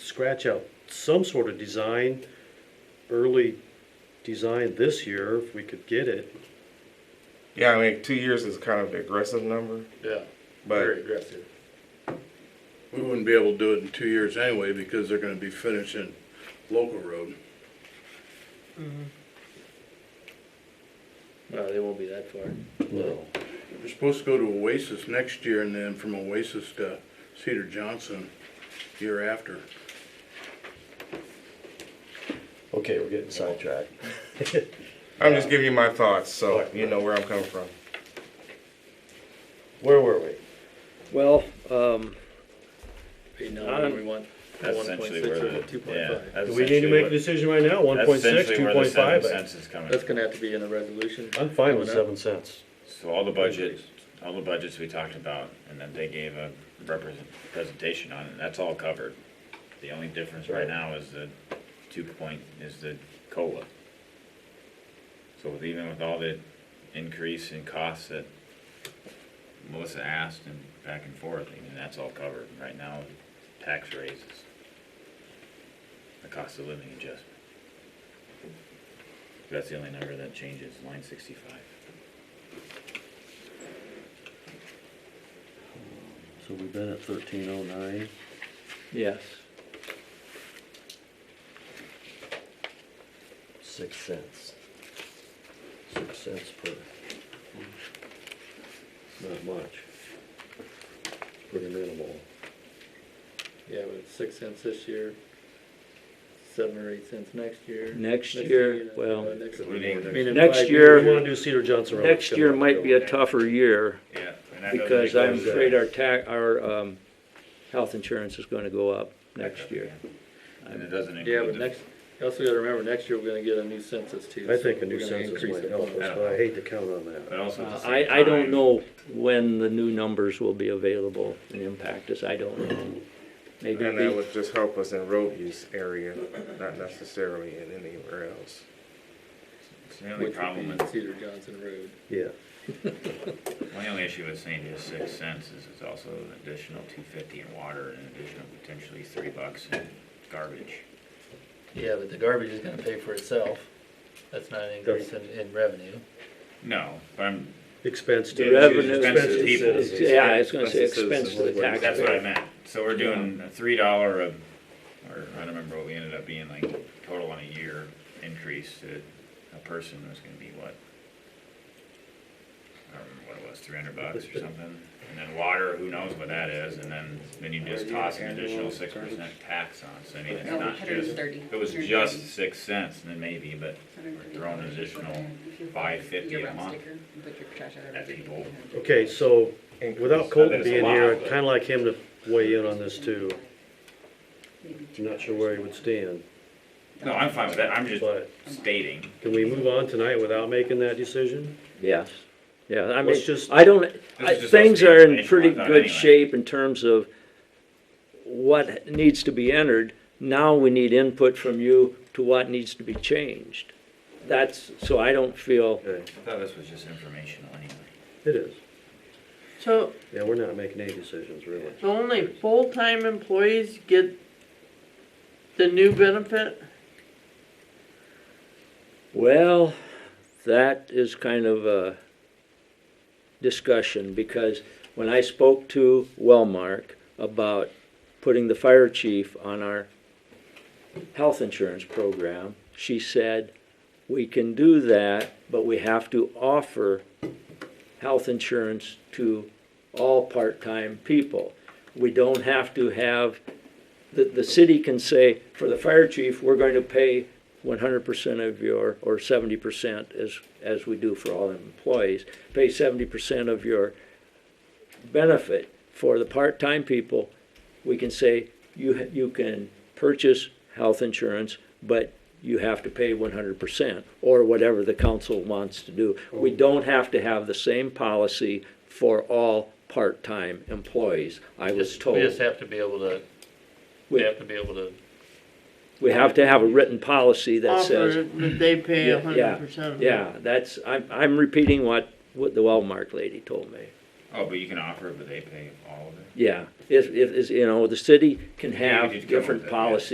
scratch out some sort of design, early design this year, if we could get it. Yeah, I mean, two years is kind of an aggressive number, Yeah, but very aggressive. We wouldn't be able to do it in two years anyway, because they're gonna be finishing local road. No, Mm-hmm. they won't be that far. No. They're supposed to go to Oasis next year, and then from Oasis to Cedar Johnson year after. Okay, we're getting sidetracked. I'm just giving you my thoughts, so you know where I'm coming from. Where were we? Well, um, They know what we want. That's essentially where the, Two point yeah. five. that's Do we need to make a essentially decision right now? where- One that's point six, essentially two where the point seven five? cents is coming That's from. gonna have to be in a resolution. I'm fine with Coming seven up. cents. So all the budgets, all the budgets we talked about, and then they gave a represent, presentation on it, that's all covered. The only difference right now is the two point, is the COLA. So with, even with all the increase in costs that Melissa asked and back and forth, I mean, that's all covered right now, tax raises. The cost of living adjustment. That's the only number that changes, line sixty-five. So we've been at thirteen oh nine. Yes. Six cents. Six cents per. Not much. Pretty minimal. Yeah, with six cents this year, seven or eight cents next year. Next year, uh, well- next- We need- I mean, in Next five year- years, We wanna do Cedar Johnson Road. next year might be a tougher year Yeah. and that doesn't because make I'm those, uh, afraid our ta, our, um, health insurance is gonna go up next year. And it doesn't Yeah, but include the, next, you also gotta remember, next year we're gonna get a new census too. I so think a new we're gonna census increase might it. help us, but I hate to count on that. but also at Uh, the same I, I don't time, know when the new numbers will be available and impact us, I don't know. Maybe And that we, would just help us in road use area, not necessarily in anywhere else. it's The only Which problem would be with, Cedar Johnson Road. Yeah, my only issue with saying just six cents is it's also an additional two fifty in water and an additional potentially three bucks in garbage. Yeah, but the garbage is gonna pay for itself. That's not an increase in, in revenue. No, but I'm, expense the to. Yeah, it's revenue. expense to people. it's- Yeah, I was gonna say expense to the that's what I taxpayer. meant. So we're doing a three dollar of, or I don't remember what we ended up being like total on a year increase to a person was gonna be what? I don't remember what it was, three hundred bucks or something. And then water, who knows what that is, and then, then you just toss an additional six percent tax on, so I mean, it's No, not just, 130, if it was 130. just six cents, then maybe, but We're throwing an additional 550 a month at people. Okay, so without Colton That is a being lot, here, I'd but- kinda like him to weigh in on this too. I'm not sure where he would stand, No, I'm fine with that, I'm just but stating. can we move on tonight without making that decision? Yes, yeah, I mean, Let's just- I don't, I- just things us are being in pretty patient, I thought, good anyway. shape in terms of what needs to be entered. Now we need input from you to what needs to be changed. That's, so I don't feel, Okay, I thought this was just informational anyway. it is. So Yeah, we're not making any decisions really. so only full-time employees get the new benefit? well, that is kind of a discussion because when I spoke to Wellmark about putting the fire chief on our health insurance program, she said, we can do that, but we have to offer health insurance to all part-time people. We don't have to have, the, the city can say, for the fire chief, we're going to pay one hundred percent of your, or seventy percent as, as we do for all employees, pay seventy percent of your benefit. For the part-time people, we can say, you, you can purchase health insurance, but you have to pay one hundred percent, or whatever the council wants to do. We don't have to have the same policy for all part-time employees, I was Just, we just told. have to be able to, we We- have to be able to, We have to have a written policy that says. Offer that they pay Yeah, a hundred percent. Yeah, that's, I'm, I'm repeating what, what the Wellmark lady told me. Oh, but you can offer it, but they pay all of it? Yeah, if, if, is, you know, the city can Yeah, we have need to come up different with that, yeah. policies